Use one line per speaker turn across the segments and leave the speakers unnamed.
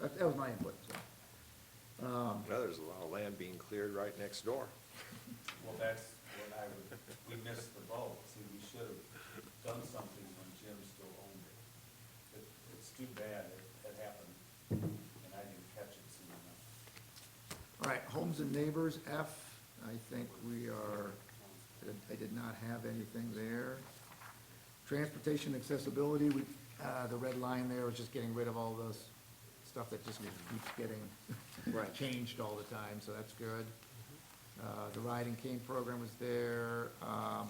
That, that was my input, so.
Well, there's a lot of land being cleared right next door.
Well, that's what I would, we missed the boat. See, we should have done something when Jim still owned it. It, it's too bad it, it happened and I didn't catch it soon enough.
All right, homes and neighbors, F, I think we are, I did not have anything there. Transportation accessibility, we, uh, the red line there was just getting rid of all those stuff that just keeps getting
Right.
changed all the time, so that's good. Uh, the riding cane program was there, um,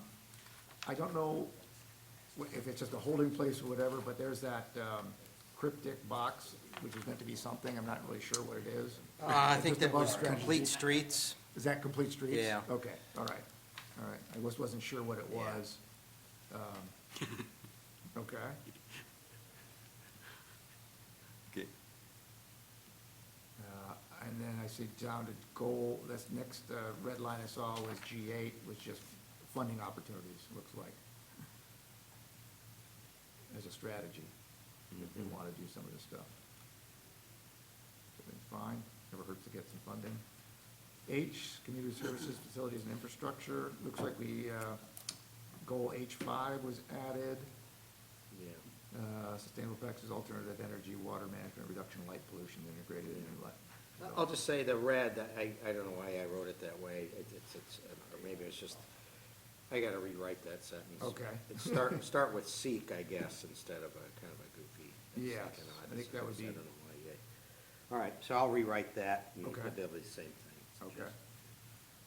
I don't know wh- if it's just a holding place or whatever, but there's that, um, cryptic box, which is meant to be something, I'm not really sure what it is.
Uh, I
It's
think
just
that
above
was
strategy.
complete streets.
Is that complete streets?
Yeah.
Okay, all right, all right. I just wasn't sure what it
Yeah.
was. Um, Okay.
Okay.
Uh, And then I see down to goal, that's next uh, red line I saw was G8, was just funding opportunities, looks like. As a strategy, if they want to do some of this stuff. Everything's fine, never hurts to get some funding. H, community services, facilities and infrastructure, looks like we, uh, goal H5 was added. Uh, Sustainable practices, alternative energy, water management, reduction of light pollution integrated into li-
I'll just say the red, that- I, I don't know why I wrote it that way. It- It's, it's, uh, or maybe it's just, I gotta rewrite that sentence.
Okay.
It's Start, start with seek, I guess, instead of a kind of a goofy. it's
Yes,
like an odd
I think that would
sentence. I
be-
don't know why, yeah. All right, so I'll rewrite that. and
Okay.
It'll be the same thing.
Okay.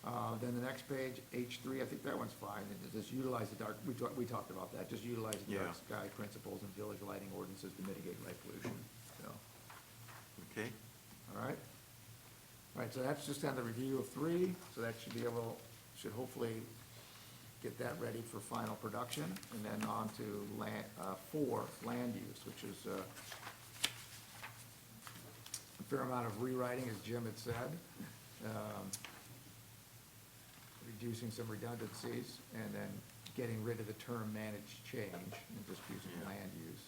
Uh, Then the next page, H three, I think that one's fine, it just utilize the dark, we talked, we talked about that, just utilize the
Yeah.
dark sky principles and village lighting ordinances to mitigate light pollution, so,
Okay.
all right? All right, so that's just on the review of three, so that should be able, should hopefully get that ready for final production, and then on to land, uh, four, land use, which is, uh, a fair amount of rewriting, as Jim had said, um, reducing some redundancies, and then getting rid of the term managed change, and just using land use.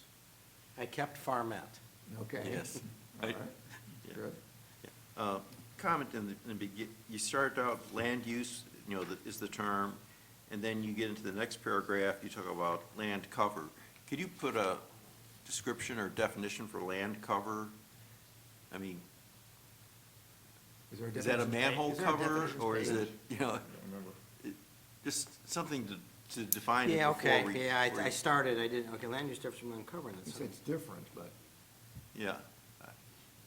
I kept Farmette.
Okay?
Yes.
All
I-
right,
yeah.
good.
Uh, Comment in the, in the begin, you start out land use, you know, that is the term, and then you get into the next paragraph, you talk about land cover. Could you put a description or definition for land cover? I mean,
Is there
is that a
definitions-
manhole
is there a
cover,
definitions
or is
page?
it, you know,
I don't remember.
it- just something to, to define it
Yeah,
before
okay,
we-
yeah,
before
I, I
you-
started, I didn't, okay, land use difference from uncovering
You
it.
said it's different, but,
Yeah.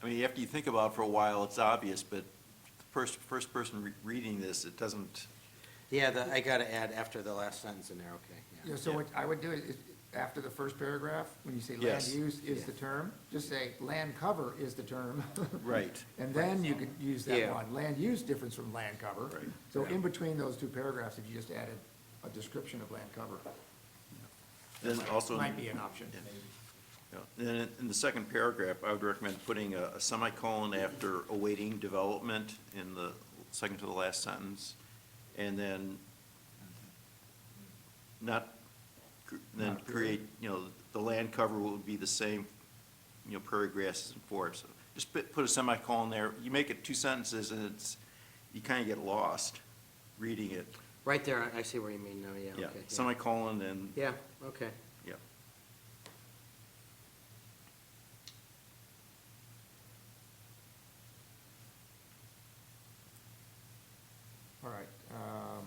I mean, after you think about it for a while, it's obvious, but the first, first person re- reading this, it doesn't,
Yeah, the, I gotta add after the last sentence in there, okay,
yeah,
yeah.
so
Yeah.
what I would do is, after the first paragraph, when you say land
Yes.
use is
Yeah.
the term, just say land cover is the term.
Right.
And then you could use that
Yeah.
one, land use difference from land cover.
Right.
So in between those two paragraphs, if you just added a description of land cover,
then also.
might be an option.
Yeah. Yeah. Then in- in the second paragraph, I would recommend putting a a semicolon after awaiting development in the second to the last sentence, and then not, cr- then
Not
create, you know, the land cover will be the same, you know, prairie grasses and forests. So Just put, put a semicolon there, you make it two sentences, and it's, you kind of get lost reading it.
Right there, I- I see where you mean now, yeah, okay.
Yeah, semicolon and,
Yeah, okay.
yeah.
All right. um,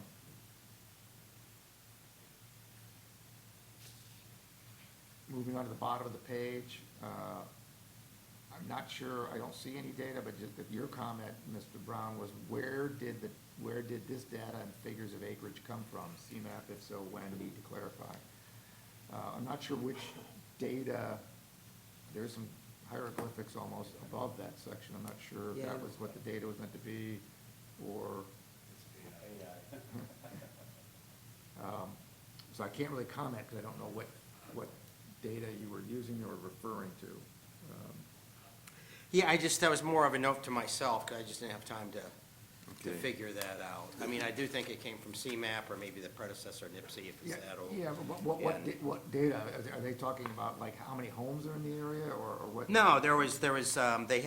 Moving on to the bottom of the page, uh, I'm not sure, I don't see any data, but just that your comment, Mr. Brown, was where did the, where did this data and figures of acreage come from? CMAP, if so, when, need to clarify. Uh, I'm not sure which data, there's some hieroglyphics almost above that section. I'm not sure if
Yeah.
that was what the data was meant to be, or
AI.
Um, So I can't really comment, because I don't know what, what data you were using or referring to. Um,
Yeah, I just, that was more of a note to myself, because I just didn't have time to, to
Okay.
figure that out. I mean, I do think it came from CMAP, or maybe the predecessor NIPSI, if it's
Yeah,
that old.
yeah, but what- what, what,
And-
da- what data, are they- are they talking about, like, how many homes are in the area, or or what?
No, there was, there was, um, they had